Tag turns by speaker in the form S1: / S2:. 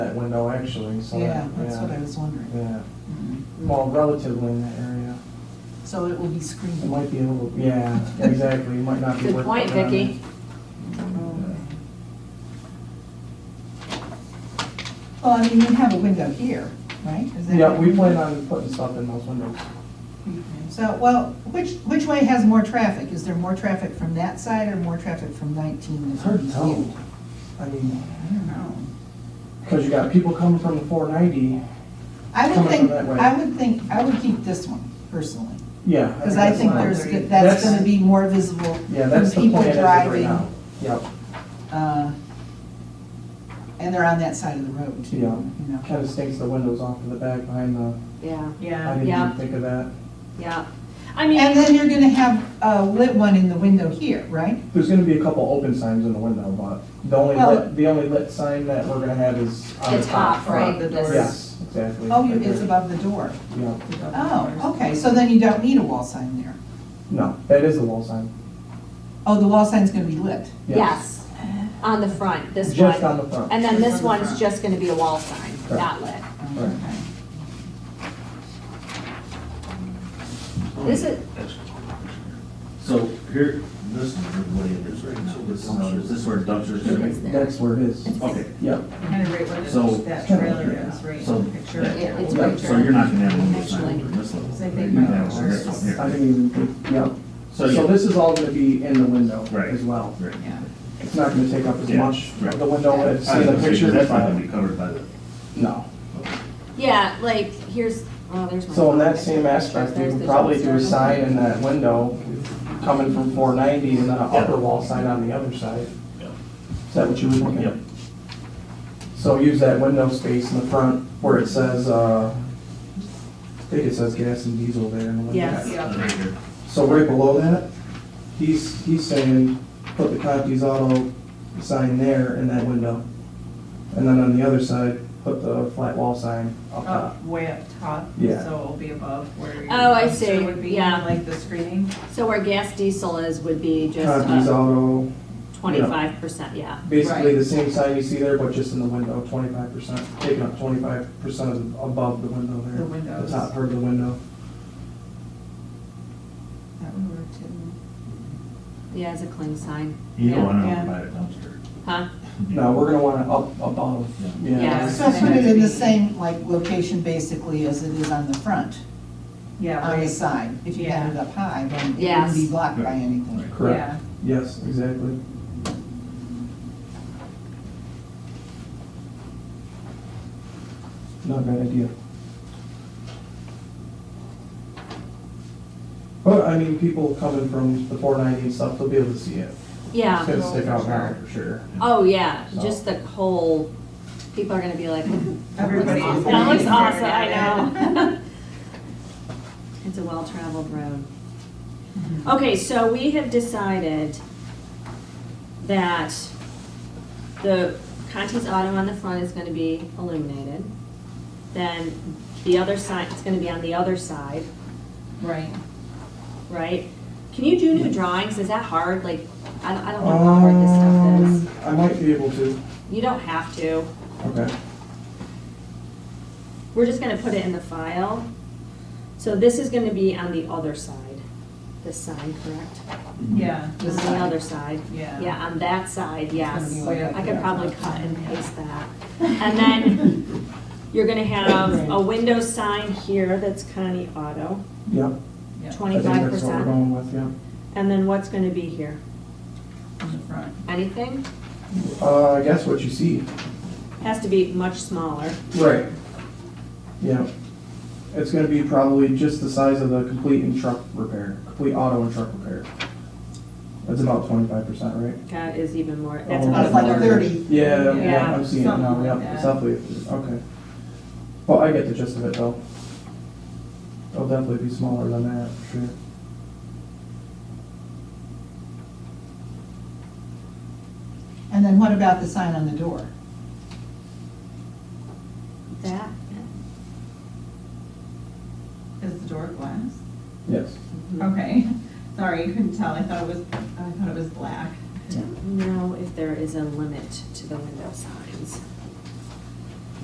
S1: that window actually, so.
S2: Yeah,
S1: that-
S2: that's what I was wondering.
S1: Yeah,
S2: Mhm.
S1: well, relatively in that area.
S2: So it will be
S1: It
S2: screened.
S1: might be a little, yeah, exactly, it might not be.
S3: Good
S1: worth
S3: point,
S1: putting on
S3: Vicki.
S2: Oh. Well, I mean, you have a window here, right? Is
S1: there.
S2: that-
S1: Yeah, we plan on putting stuff in those windows.
S2: So, well, which, which way has more traffic? Is there more traffic from that side or more traffic from 19?
S1: It's hard to tell. I mean,
S2: I don't know.
S1: because you got people coming from the four ninety,
S2: I
S1: Coming
S2: would
S1: from
S2: think,
S1: that way.
S2: I would think, I would keep this one personally,
S1: yeah.
S2: because I think
S1: that's
S2: there's,
S1: fine.
S2: that's gonna be more visible
S1: Yeah, that's
S2: from
S1: the
S2: people
S1: plan as of right
S2: driving.
S1: now. Yep,
S2: uh, And they're on that side of the road too,
S1: Yeah.
S2: you know?
S1: kind of stinks the windows off to the back behind the,
S3: Yeah,
S1: I
S4: Yeah,
S1: didn't
S3: Yeah.
S1: even think of that.
S3: yeah. I
S2: And
S3: mean,
S2: then you're gonna have a lit one in the window here, right?
S1: There's gonna be a couple open signs in the window, but the only
S2: Well-
S1: lit, the only lit sign that we're gonna have is on the
S3: it's
S1: top.
S3: off, right?
S4: the
S3: This-
S4: door.
S1: Yes, exactly.
S2: Oh, you-
S1: right
S2: it's
S1: there.
S2: above the door.
S1: Yeah,
S2: Oh, okay, so then you don't need a wall sign there.
S1: no, that is the wall sign.
S2: Oh, the wall sign's gonna be lit.
S3: Yes, on the front, this one.
S1: Just on the front.
S3: And then this
S2: Just on the
S3: one's
S2: front.
S3: just gonna be a wall sign, not lit.
S2: Oh, okay.
S3: This is,
S5: So here, this is what it is right now, this is, how it is. This is where dumpsters gonna
S3: It's
S5: be?
S3: there.
S1: That's where it is.
S5: Okay,
S1: Yep,
S4: kind of right where
S5: So-
S4: the- that trailer is, right
S5: So-
S4: in the picture.
S5: Yeah,
S3: yeah, it's
S1: Yeah,
S3: right
S5: so you're
S3: there.
S5: not gonna have one of those signs on this
S4: So I
S5: level.
S4: think
S5: You're
S4: my
S5: gonna have one
S4: ours
S5: this
S4: is-
S1: I
S5: one here.
S1: didn't even, think- yep.
S5: So,
S1: So
S5: yeah,
S1: this is all gonna be in the window
S5: Right.
S1: as well.
S5: right.
S4: Yeah.
S1: It's not gonna take up as
S5: Yeah,
S1: much
S5: right.
S1: of the window as
S5: I was
S1: in the
S5: gonna say, 'cause
S1: picture.
S5: That's not
S1: but-
S5: gonna be covered by the,
S1: No.
S3: yeah, like, here's, oh, there's my.
S1: So in that
S3: phone.
S1: same aspect, we
S3: There's
S1: could
S3: the
S1: probably do a
S3: dumpster.
S1: sign in that window coming from four ninety and then an upper wall sign on the other side. Is that what you were thinking?
S5: Yep.
S1: So use that window space in the front where it says, uh, I think it says gas and diesel there in the window.
S4: Yes.
S5: uh, right here.
S1: So right below that, he's, he's saying, put the Conti's Auto sign there in that window. And then on the other side, put the flat wall sign up top.
S4: Up, way up top, so
S1: Yeah.
S4: it'll be above where your.
S3: Oh, I
S4: dumpster
S3: see,
S4: Would be,
S3: yeah.
S4: like the screening.
S3: So where gas diesel is would be
S1: Conti's
S3: just uh,
S1: Auto,
S3: twenty-five percent, yeah.
S1: Basically the same sign you see there, but just in the window, twenty-five percent, taking up twenty-five percent of, above the window there.
S4: The windows.
S1: The top part of the window.
S4: That would work too.
S3: Yeah, it's a clean sign.
S5: You
S3: Yeah.
S5: don't wanna
S4: Yeah.
S5: buy a dumpster.
S3: Huh?
S1: No, we're gonna wanna up above,
S5: Yeah.
S3: Yeah.
S1: yeah.
S2: So put it in the same, like, location basically as it is on the front,
S4: Yeah,
S2: on the
S4: right,
S2: side. If you had it up high, then it
S3: Yes.
S2: wouldn't be blocked by anything.
S4: yeah.
S1: Correct, yes, exactly. Not a bad idea. But, I mean, people coming from the four ninety and stuff, they'll be able to see it. It's
S3: Yeah,
S1: gonna stick out now, for sure.
S3: oh, yeah,
S1: So-
S3: just the whole, people are gonna be like,
S4: Everybody.
S3: That
S4: is
S3: looks
S4: looking
S3: awesome,
S4: at it.
S3: I know. It's a well-traveled road. Okay, so we have decided that the Conti's Auto on the front is gonna be illuminated. Then the other side, it's gonna be on the other side,
S4: Right.
S3: right? Can you do new drawings? Is that hard? Like, I don't, I don't know how hard this stuff is.
S1: Um, I might be able to,
S3: You don't have to.
S1: okay.
S3: We're just gonna put it in the file. So this is gonna be on the other side, this sign, correct?
S4: Yeah,
S3: On the other side.
S4: Yeah.
S3: Yeah, on that side,
S2: gonna be
S3: yes.
S2: like up
S3: I could
S2: there.
S3: probably cut and paste that. And then you're gonna have a window sign here that's Connie Auto,
S1: Yep.
S4: yeah,
S1: I think
S3: twenty-five
S1: that's what we're
S3: percent.
S1: going with, yeah.
S3: And then what's gonna be here?
S4: in the front.
S3: Anything?
S1: Uh, I guess what you see.
S3: Has to be much smaller.
S1: Right. Yeah. It's gonna be probably just the size of the complete and truck repair, complete auto and truck repair. That's about twenty-five percent, right?
S3: That is even more, that's
S1: Oh,
S3: about a
S2: It's like
S3: third.
S2: 30.
S1: Yeah, yeah,
S4: Yeah,
S1: I'm seeing it now,
S4: something like
S1: yeah,
S4: that.
S1: it's roughly, okay. Well, I get the gist of it though. It'll definitely be smaller than that, for sure.
S2: And then what about the sign on the door?
S3: That,
S4: Is the door glass?
S1: Yes.
S3: mhm.
S4: Okay, sorry, you couldn't tell, I thought it was, I thought it was black.
S3: know if there is a limit to the window signs.